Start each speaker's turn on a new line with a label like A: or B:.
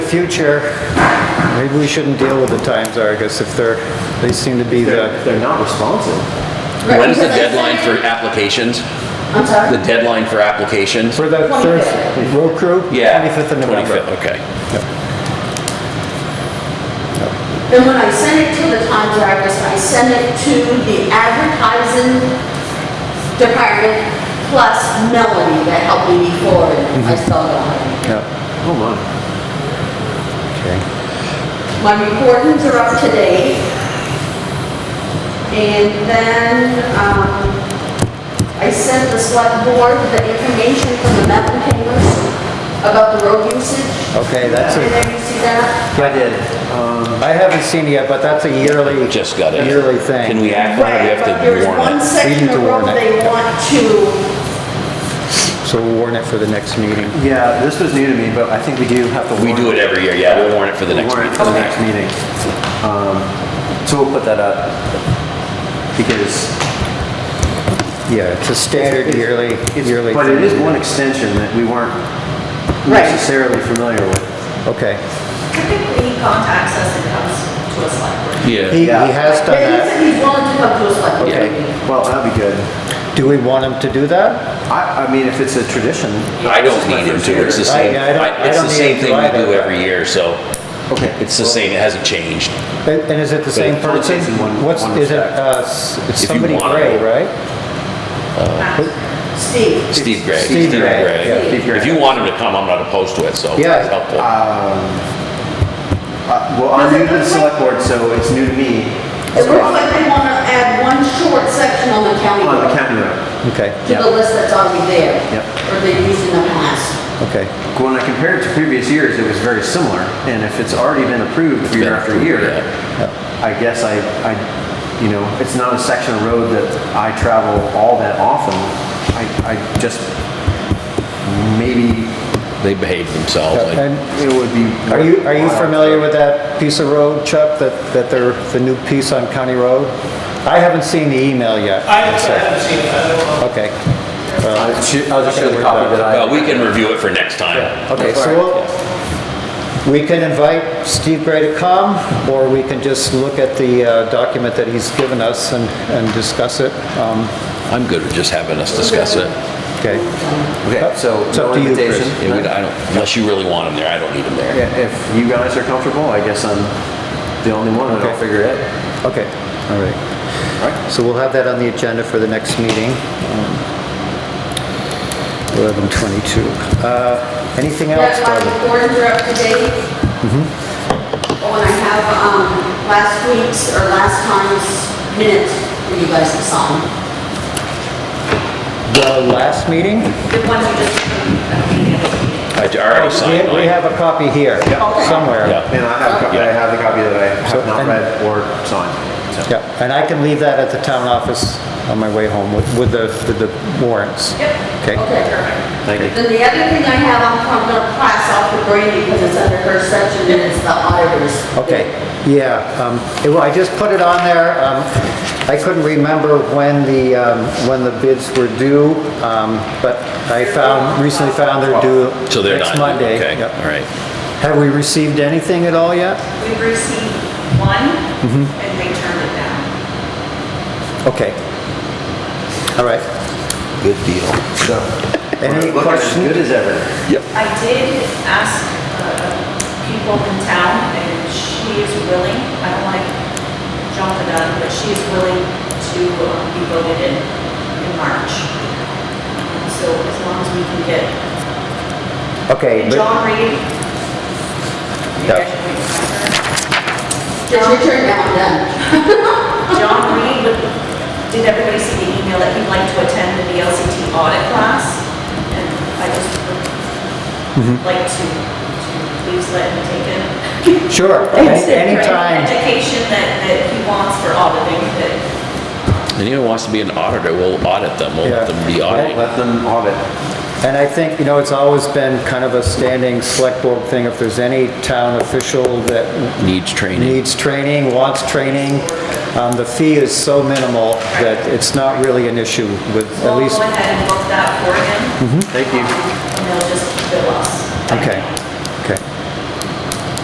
A: future, maybe we shouldn't deal with the Times Argus if they're, they seem to be the,
B: They're not responsive.
C: When's the deadline for applications?
D: I'm sorry?
C: The deadline for applications?
A: for that third road crew?
C: Yeah.
A: 25th of November.
C: 25th, okay.
D: And when I send it to the Times Argus, I send it to the advertising department plus Melanie that helped me before, and I
C: Mm-hmm.
D: still don't have it.
A: Yeah,
B: Oh my.
A: okay.
D: My recordings are up to date. And then, um, I sent the select board the information from the Mountain Kingers about the road usage.
A: Okay, that's
D: Did
A: it.
D: you see that?
A: I did.
C: Um,
A: I haven't seen it yet, but that's a yearly.
C: Just got it.
A: Yearly thing.
C: Can we act on it? or
D: Right, but
C: We
D: there's
C: have to
D: one
C: warn it.
D: section
A: need to
D: of road
A: warn it.
D: they want to
A: So we'll warn it for the next meeting.
B: Yeah, this was new to me, but I think we do have to.
C: We do it every year, yeah, we'll warn it for the next
B: Warn
C: meeting.
B: it for the next meeting. Um, So we'll put that up because
A: Yeah, it's a standard
B: It's-
A: yearly,
B: it's-
A: yearly.
B: But it is one extension that we weren't
D: Right.
B: necessarily familiar with.
A: Okay.
E: Typically, he contacts us and comes to us like.
A: He,
C: Yeah.
A: he has done
D: Yeah, he
A: that.
D: said he's willing to come to us like.
C: Okay.
B: Well, that'd be good.
A: Do we want him to do that?
B: I, I mean, if it's a tradition,
C: I don't need him to, it's the
A: Right,
C: same,
A: yeah, I don't- I
C: it's
A: don't
C: the
A: need
C: same
A: him to
C: thing we
A: either,
C: do
A: but-
C: every year, so
B: okay.
C: it's the same, it hasn't changed.
A: And and is it the same
B: it's only
A: person?
B: taken one-
A: What's,
B: one
A: is it,
B: step.
A: uh, s- it's
C: If you
A: somebody
C: want
A: gray,
C: him.
A: right?
D: Steve.
C: Steve Gray.
A: Steve Gray, yeah,
B: Steve Gray.
C: If you want him to come, I'm not opposed to it, so
A: Yeah.
C: it's helpful.
B: Uh, Well, I'm new to the select board, so it's new to me. uh,
D: It looks like they want to add one short section on the county
B: On the
D: road
B: county road.
A: Okay,
D: to the list that's already there.
B: Yep.
D: Or they used in the past.
A: okay.
B: When I compare it to previous years, it was very similar. And if it's already been approved
C: been
B: year after
C: approved,
B: year,
C: yeah.
B: I guess I, I, you know, it's not a section of road that I travel all that often. I, I just, maybe
C: They behave themselves, like,
A: Uh, And
B: it would be.
A: are you, are you
B: worthwhile.
A: familiar with that piece of road, Chuck, that, that they're, the new piece on County Road? I haven't seen the email yet.
F: I haven't seen it, I don't know.
A: Okay.
B: I'll
A: Well,
B: just show I'll just show the copy that I.
C: Uh, well, we can review it for next time.
A: Okay, so we'll, we can invite Steve Gray to come, or we can just look at the uh, document that he's given us and, and discuss it. Um,
C: I'm good with just having us discuss it.
A: Okay,
B: Okay, so
A: It's up
B: no
A: to you, Chris.
B: invitation.
C: Yeah, we- I don't- Unless you really want him there, I don't need him there.
B: Yeah, If you guys are comfortable, I guess I'm the only one that'll
A: Okay.
B: figure it out.
A: okay, all right. So we'll have that on the agenda for the next meeting. um, 11:22. Uh, Anything else,
D: Yeah,
A: Barbara?
D: my orders are up to date. Oh, and I have, um, last week's or last time's minutes for you guys to sign.
A: The last meeting?
E: The ones you just.
C: I already signed
A: We we
C: mine.
A: have a copy here, somewhere.
C: Yeah.
B: And I have, a co- I have the copy that I
A: So,
B: have not
A: and-
B: read or signed. so.
A: Yeah, and I can leave that at the town office on my way home with, with the, with the warrants.
E: Yep.
A: Okay,
D: Okay.
B: Thank you.
D: Then the other thing I have, I'm I'm gonna pass off to Brandy because it's under her section and it's the auditors.
A: okay, yeah, um, it- well, I just put it on there, um, I couldn't remember when the, um, when the bids were due, um, but I found, recently found they're due
C: So they're not.
A: next Monday.
C: Okay,
A: Yep.
C: all right.
A: Have we received anything at all yet?
E: We've received one, and they turned it down.
A: Okay. All right.
C: Good deal.
B: So,
A: Any
B: we're looking as
A: questions?
B: good as ever.
E: I did ask uh, people in town, and she is willing, I don't like jump the gun, but she is willing to um, be voted in in March. So as long as we can get,
A: Okay.
E: and
A: but-
E: John Reed. you
A: Yeah.
E: guys should wait for
D: Get your turn down then.
E: her. John Reed, did everybody see the email that he'd like to attend the VLCT audit class? And I just would like to, to please let him take it.
A: Sure,
E: It's
A: any- anytime,
E: Education that, that he wants for auditing, that
C: Anyone wants to be an auditor, we'll audit them, we'll let
A: Yeah.
C: them be audited.
B: Let them audit.
A: and I think, you know, it's always been kind of a standing select board thing, if there's any town official that
C: Needs training.
A: needs training, wants training, um, the fee is so minimal that it's not really an issue with, at
E: we'll
A: least,
B: Mm-hmm.
E: go ahead and book that for him.
B: Thank you.
E: And they'll just bill us.
A: okay,